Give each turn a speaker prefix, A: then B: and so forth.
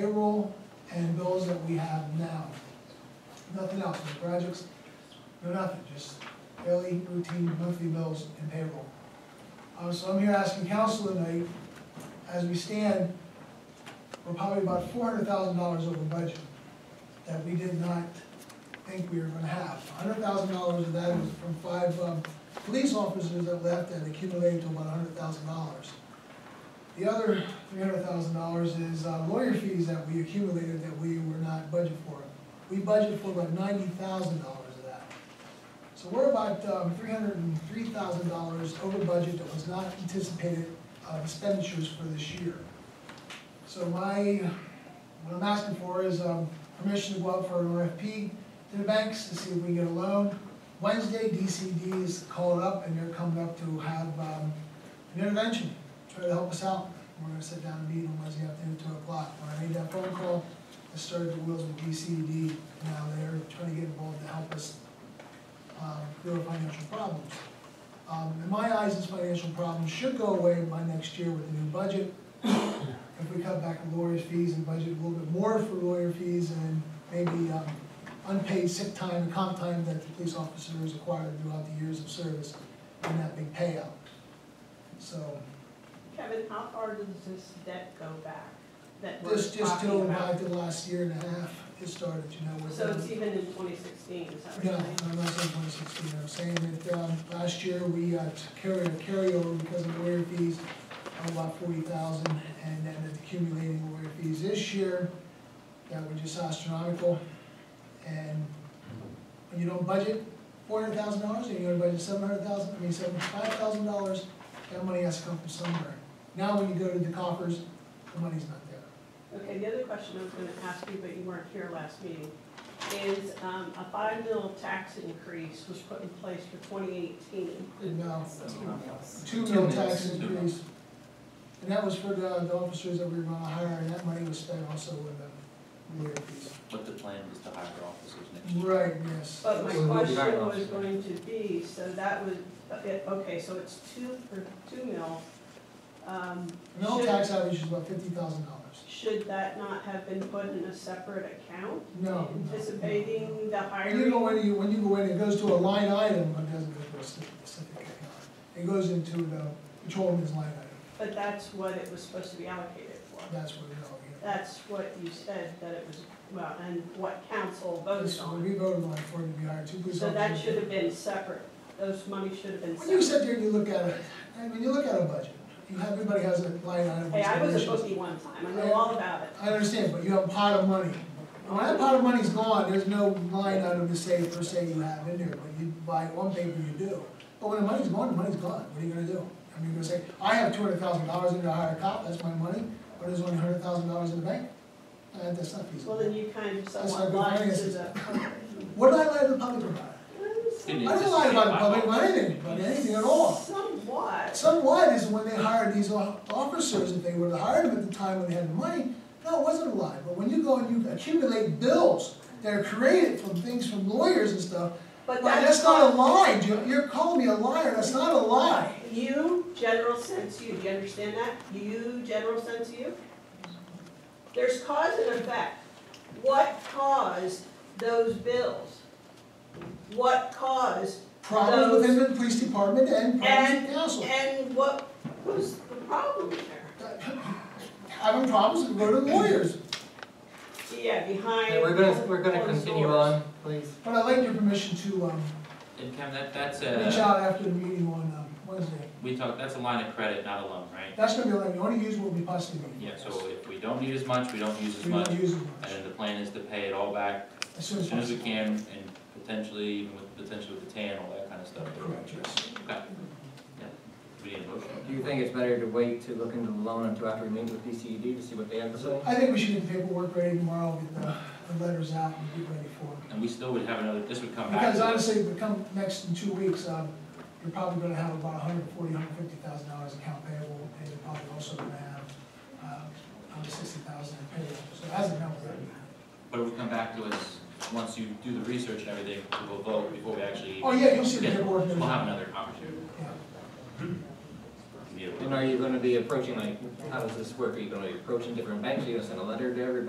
A: payroll and those that we have now. Nothing else, no projects, no nothing, just daily routine monthly bills and payroll. Uh, so I'm here asking council tonight, as we stand, we're probably about four hundred thousand dollars over budget that we did not think we were gonna have. hundred thousand dollars of that was from five, um, police officers that left and accumulated to about hundred thousand dollars. The other three hundred thousand dollars is uh, lawyer fees that we accumulated that we were not budgeted for. We budgeted for about ninety thousand dollars of that. So we're about um, three hundred and three thousand dollars over budget that was not anticipated uh, expenditures for this year. So my, what I'm asking for is um, permission to go out for an RFP to the banks to see if we can get a loan. Wednesday, DCD is called up and they're coming up to have um, an intervention, try to help us out. We're gonna sit down and meet on Wednesday afternoon at two o'clock. When I made that phone call, I started the wheels with DCD. Now they're trying to get involved to help us um, real financial problems. Um, in my eyes, this financial problem should go away by next year with the new budget. If we cut back on lawyers' fees and budget a little bit more for lawyer fees and maybe, um, unpaid sick time and comp time that the police officers acquired throughout the years of service and that big payout. So,
B: Kevin, how far does this debt go back that we're
A: this just till
B: talking
A: about
B: about?
A: the last year and a half, it started, you know, with.
B: So it's even in twenty sixteen, is that what
A: No,
B: you're
A: no,
B: saying?
A: I'm not saying twenty sixteen, I'm saying that, um, last year we, uh, carried a carryover because of lawyer fees of about forty thousand, and then it's accumulating lawyer fees this year that were just astronomical. And when you don't budget four hundred thousand dollars, and you don't budget seven hundred thousand, I mean, seventy-five thousand dollars, that money has to come from somewhere. Now, when you go to the coffers, the money's not there.
B: Okay, the other question I was gonna ask you, but you weren't here last meeting, is, um, a five mil tax increase was put in place for twenty eighteen.
A: No.
C: Two
A: two mil tax increase. And that was for the, the officers that we were gonna hire, and that money was spent also with the lawyer fees.
C: But the plan was to hire officers next year.
A: Right, yes.
B: But my
D: So we'll be back
B: question
C: on
B: was
C: that.
B: going to be, so that would, okay, okay, so it's two, for two mil. Um,
A: Mill
B: should-
A: tax average is about fifty thousand dollars.
B: Should that not have been put in a separate account?
A: No.
B: Anticipating the
A: When you go
B: hiring?
A: in, you, when you go in, it goes to a line item, but it doesn't go to a specific account. It goes into the patrolman's line item,
B: But that's what it was supposed to be allocated for.
A: that's what it all gets.
B: That's what you said that it was, well, and what council voted
A: This-
B: on.
A: We voted on it for it to be hired, two police
B: So that
A: officers.
B: should have been separate. Those monies should have been
A: When you
B: separate.
A: sit there and you look at it, I mean, you look at a budget, you have, everybody has a line item.
B: Hey, I was a
A: consideration.
B: bookie one time. I know all about it.
A: I understand, but you have a pot of money. When that pot of money's gone, there's no line item to say per se you have in there, but you buy one paper, you do. But when the money's gone, the money's gone, what are you gonna do? I mean, you're gonna say, I have two hundred thousand dollars in to hire a cop, that's my money, but there's only hundred thousand dollars in the bank? Uh, that's not
B: Well,
A: feasible.
B: then you kind of
A: That's not
B: somewhat
A: good
B: lied to
A: finances.
B: the.
A: What did I lie to the public about? I
C: Didn't
A: don't lie about the public, about anything, about anything at all.
B: Somewhat.
A: Somewhat is when they hired these o- officers, if they were to hire them at the time when they had the money, no, it wasn't a lie, but when you go and you accumulate bills that are created from things from lawyers and stuff,
B: But
A: well, that's not a lie, You- you're calling me a liar, that's not a lie.
B: You, general sense you, do you understand that? You, general sense you? There's cause and effect. What caused those bills? What caused,
A: Problems within the police department and problems
B: and,
A: with council.
B: and what was the problem there?
A: Having problems, we go to lawyers,
B: Yeah, behind.
D: Okay, we're gonna, we're gonna
B: closed
D: continue
B: doors.
D: on, please.
A: but I'd like your permission to, um,
C: And Kevin, that, that's
A: reach
C: a,
A: out after the meeting on, um, Wednesday.
C: we talk, that's a line of credit, not a loan, right?
A: That's gonna be like, you only use what we possibly need.
C: Yeah, so if we don't need as much, we don't use as
A: We don't
C: much, and
A: use it much,
C: then the plan is to pay it all back
A: as soon
C: as
A: as
C: soon as we
A: possible.
C: can, and potentially, even with, potentially with the tan, all that kind of stuff.
A: Correct, yes.
C: Okay. Yeah, we need a motion.
E: Do you think it's better to wait to look into the loan until after we meet with DCED to see what they have to say?
A: I think we should get the paperwork ready tomorrow, get the, the letters out and get ready for it.
C: And we still would have another, this would come back.
A: Because
C: to us.
A: honestly, if we come next in two weeks, um, you're probably gonna have about a hundred forty, hundred fifty thousand dollars account payable, and you're probably also gonna have, um, sixty thousand in payable, so that's a number.
C: But it would come back to us, once you do the research and everything, we'll vote before we actually.
A: Oh, yeah, you'll see the
C: Yeah,
A: paperwork.
C: We'll have another opportunity.
A: Yeah.
C: to be able to-
E: And are you gonna be approaching, like, how does this work? Are you gonna be approaching different banks? Are you gonna send a letter to every